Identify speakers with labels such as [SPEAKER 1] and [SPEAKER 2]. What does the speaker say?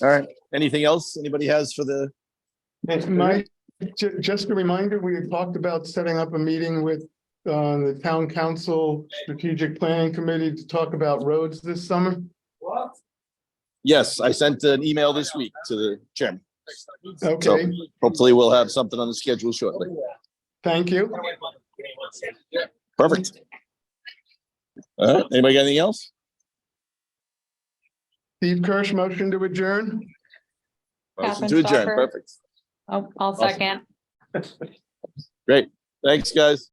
[SPEAKER 1] All right. Anything else anybody has for the,
[SPEAKER 2] And my, ju- just a reminder, we had talked about setting up a meeting with uh, the town council strategic planning committee to talk about roads this summer.
[SPEAKER 1] yes, I sent an email this week to the chairman.
[SPEAKER 2] Okay,
[SPEAKER 1] Hopefully we'll have something on the schedule shortly.
[SPEAKER 2] thank you.
[SPEAKER 1] Perfect. All right, anybody got anything else?
[SPEAKER 2] Steve Kirsch, motion to adjourn.
[SPEAKER 1] Motion to adjourn,
[SPEAKER 3] Kappenstoffer.
[SPEAKER 1] perfect.
[SPEAKER 3] Oh, I'll
[SPEAKER 1] Awesome.
[SPEAKER 3] second.
[SPEAKER 1] Thanks, guys.